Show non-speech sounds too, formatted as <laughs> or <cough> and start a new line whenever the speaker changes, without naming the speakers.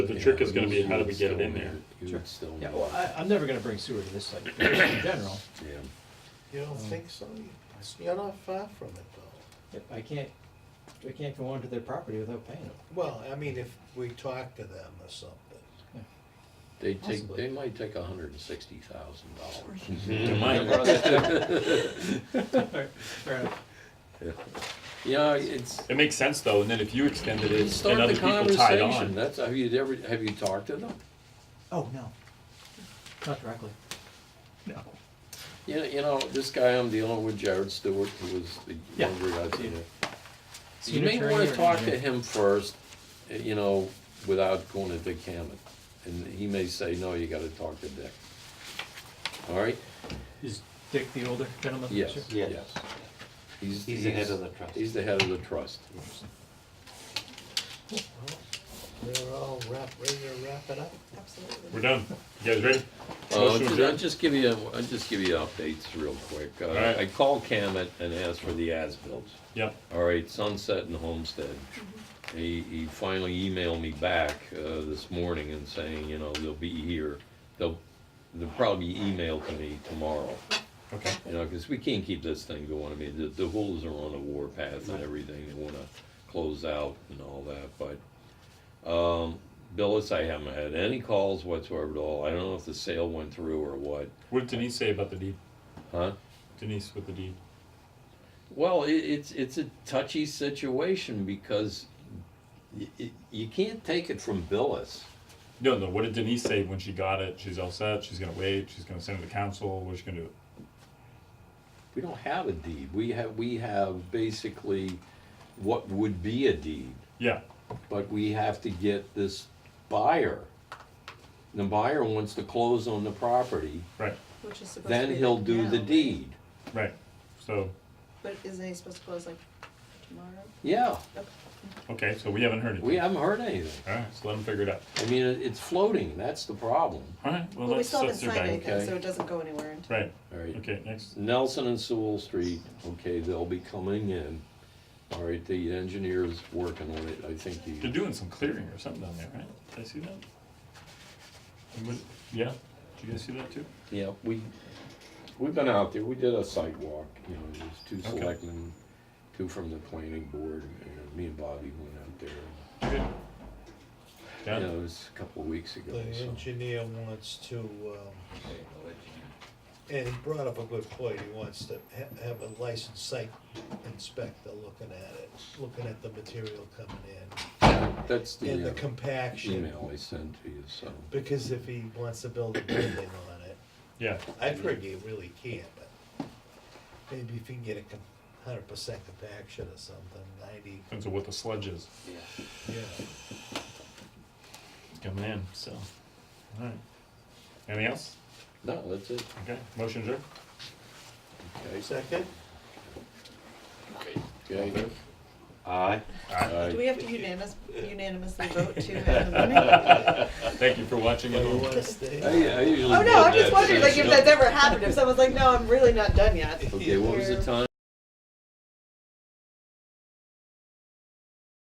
But the trick is gonna be how do we get it in there?
You would still.
Yeah, well, I, I'm never gonna bring sewer to this site in general.
Yeah.
You
Mm.
don't think so? You're not far from it though.
If I can't, I can't go onto their property without paying them.
Well, I mean, if we talk to them or something.
They take,
Possibly.
they might take a hundred and sixty thousand dollars.
To mine.
<laughs> Fair enough.
Yeah, it's,
It makes sense though, and then if you extended it and
start
other
the
people tied
conversation,
on.
that's, have you ever, have you talked to them?
Oh, no. Not directly. No.
You know, you know, this guy I'm dealing with, Jared Stewart, who was the
Yeah.
younger guy, you know.
So
You
an
may
attorney
wanna
or
talk to
engineer?
him first, uh, you know, without going to Dick Hammond, and he may say, no, you gotta talk to Dick. All right?
Is Dick the older gentleman?
Yes,
Sure.
Yes.
yes. He's,
He's the head of the trust.
He's the head of the trust.
They're all wrap, ready to wrap it up.
We're done. You guys ready?
Uh,
Motion
ju- I'll
adjourned.
just give you, I'll just give you updates real quick. Uh,
Alright.
I called Camet and asked for the as-bills.
Yep,
All right, Sunset and Homestead. He, he finally emailed me back, uh, this morning and saying, you know, they'll be here. They'll, they'll probably email to me tomorrow,
okay.
you know, cause we can't keep this thing going. I mean, the, the wolves are on a war path and everything. They wanna close out and all that, but, um, Billis, I haven't had any calls whatsoever at all. I don't know if the sale went through or what,
What did Denise say about the deed?
huh?
Denise with the deed.
Well, it, it's it's a touchy situation because y y you can't take it from Billis.
No, no, what did Denise say when she got it? She's all set, she's gonna wait, she's gonna send it to council, what's she gonna do?
We don't have a deed. We have we have basically what would be a deed,
Yeah,
but we have to get this buyer. The buyer wants to close on the property,
right,
Which is supposed to
then
be
he'll
like
do the
now.
deed.
right. So,
But isn't he supposed to close like tomorrow?
Yeah,
okay, so we haven't heard anything.
we haven't heard anything.
All right, so let them figure it out.
I mean, it- it's floating. That's the problem.
All right, well,
Well, we
that's,
still haven't
that's their
signed
bag.
anything,
okay.
so it doesn't go anywhere until.
Right,
All right.
okay, next.
Nelson and Sewell Street, okay, they'll be coming in. All right, the engineer's working on it, I think
They're
he,
doing some clearing or something down there, right? Did I see that? And what- Yeah, did you guys see that too?
yeah, we, we've been out there, we did a site walk, you know, there's two
Okay.
selectmen, two from the planning board, and me and Bobby went out there.
Okay.
You
Yeah,
know, it was a couple of weeks ago,
The
so.
engineer wants to, um, and he brought up a good point, he wants to ha- have a licensed site inspector looking at it, looking at the material coming
That's
in, and
the
the
uh,
compaction.
email I sent to you, so.
Because if he wants to build a building on it,
yeah,
I've heard you really can't, but maybe if you can get a hundred percent compaction or something, ninety,
depends on what the sludge is
yeah.
coming in, so. All right. Anything else?
No, that's it,
Okay, motion adjourned?
okay,
Second?
okay.
Aye.
Do
Aye.
we have to unanimous, unanimously vote
<laughs>
to have the meeting?
Thank you for watching.
You
everyone.
wanna stay?
I, uh, I usually.
Oh, no, I'm
do
just
that.
wondering, like, if that's ever happened, if someone's like, no, I'm really not done yet.
Okay, what was the time?